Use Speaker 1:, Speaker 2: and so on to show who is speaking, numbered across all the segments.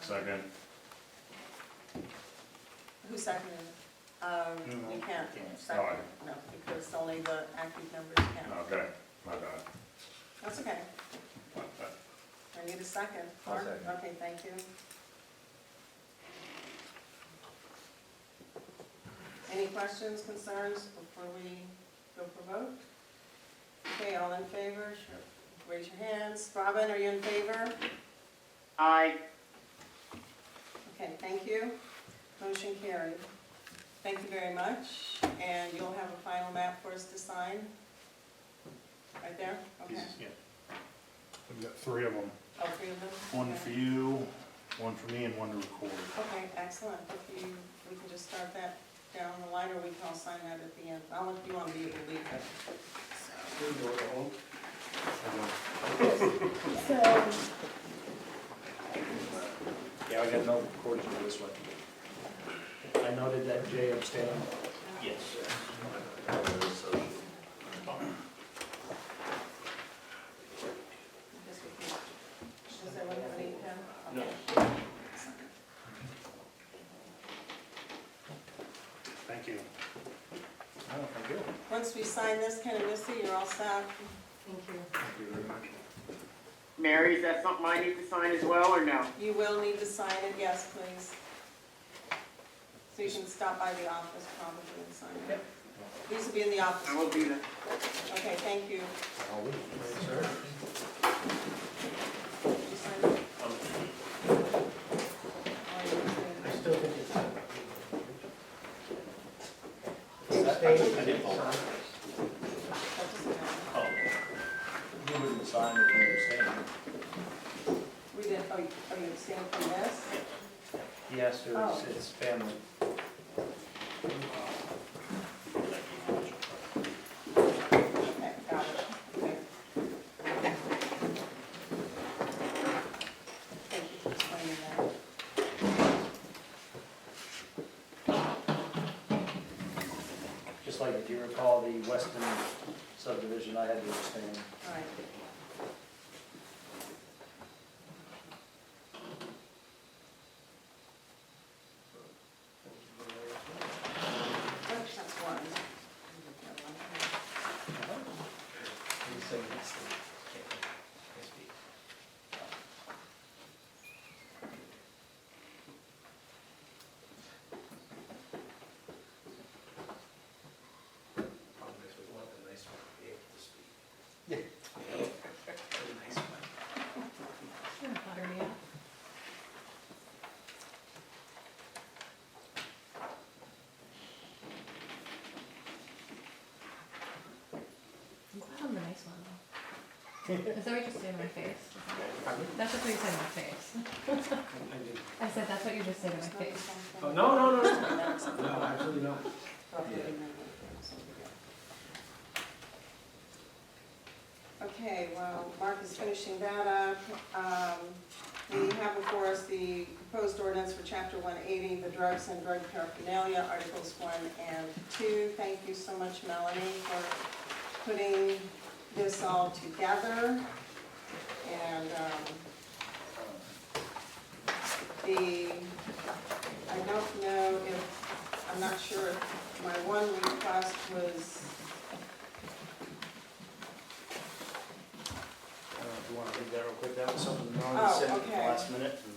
Speaker 1: Second.
Speaker 2: Um, Who seconded? it? Um,
Speaker 1: No.
Speaker 2: you can't
Speaker 1: No, I-
Speaker 2: second, it, no, because only the active members can.
Speaker 1: Okay, my bad.
Speaker 2: That's okay. I need a second.
Speaker 3: I'll
Speaker 2: Mark?
Speaker 3: second.
Speaker 2: Okay, thank you. Any questions, concerns before we go for vote? Okay, all in favor? Sure. Raise your hands. Robin, are you in favor?
Speaker 4: Aye.
Speaker 2: Okay, thank you. Motion carried. Thank you very much, and you'll have a final map for us to sign? Right there? Okay.
Speaker 1: Yeah. We've got three of them,
Speaker 2: All three of them?
Speaker 1: one
Speaker 2: Okay.
Speaker 1: for you, one for me, and one to record.
Speaker 2: Okay, excellent. If you, we can just start that down the line, or we can all sign that at the end. I don't know if you want to be able to leave it.
Speaker 5: So,
Speaker 3: Yeah, I got no recording for this one. I noted that Jay abstained.
Speaker 6: Yes.
Speaker 2: Yes, we can. Does everyone have any pen?
Speaker 6: No.
Speaker 2: Okay.
Speaker 1: Thank you.
Speaker 3: Oh, thank you.
Speaker 2: Once we sign this, Ken and Missy, you're all set?
Speaker 3: Thank you very much.
Speaker 4: Mary, is that something I need to sign as well, or no?
Speaker 2: You will need to sign it, yes, please. So you can stop by the office probably and sign it. These will be in the
Speaker 4: I
Speaker 2: office.
Speaker 4: will do that.
Speaker 2: Okay, thank you.
Speaker 3: I'll leave.
Speaker 2: Did you sign it? Oh,
Speaker 6: I still think it's. I didn't vote.
Speaker 2: That doesn't matter.
Speaker 6: Oh,
Speaker 3: You wouldn't sign if you abstained.
Speaker 2: We did, oh, you- oh, you abstained from this?
Speaker 3: Yes, it was,
Speaker 2: Oh.
Speaker 3: it's family.
Speaker 2: Okay, got it. Okay. Thank you for explaining that.
Speaker 3: Just like if you recall the Weston subdivision, I had to abstain.
Speaker 2: All right. That's one.
Speaker 6: Problem is, we want the nice one to be able to speak.
Speaker 5: I'm glad I'm the nice one though. Is that what you just did in my face? That's just what you said in my face. I said, that's what you just said in my face.
Speaker 6: Oh, no, no, no,
Speaker 2: That's
Speaker 6: no, absolutely not.
Speaker 2: Okay, well, Mark is finishing that up. Um, We have before us the proposed ordinance for chapter one eighty, the drugs and drug paraphernalia, articles one and two. Thank you so much, Melanie, for putting this all together. And, um, the, I don't know if, I'm not sure if my one request was
Speaker 3: I don't know if Uh, you want to read that real quick, that was something Norman
Speaker 2: Oh,
Speaker 3: said at the
Speaker 2: okay.
Speaker 3: last minute. and-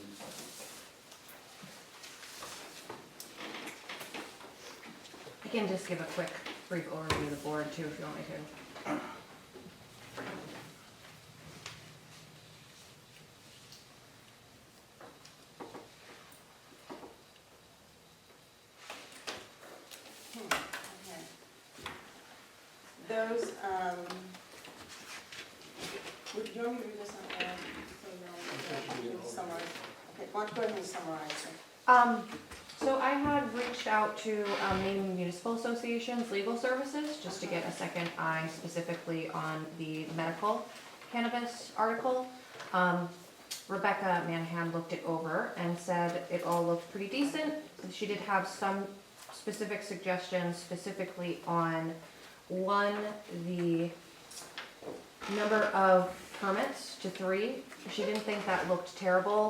Speaker 5: I can just give a quick, brief overview of the board too, if you want me to.
Speaker 2: Hmm, okay. Those, um, would you want me to read this out loud? So you know, you can Summarize. Okay, why don't you go ahead and summarize it?
Speaker 5: Um, so I had reached out to, um, Maine Municipal Association's legal services, just to get a second eye specifically on the medical cannabis article. Um, Rebecca Manhan looked it over and said it all looked pretty decent. She did have some specific suggestions specifically on, one, the number of permits to three. She didn't think that looked terrible.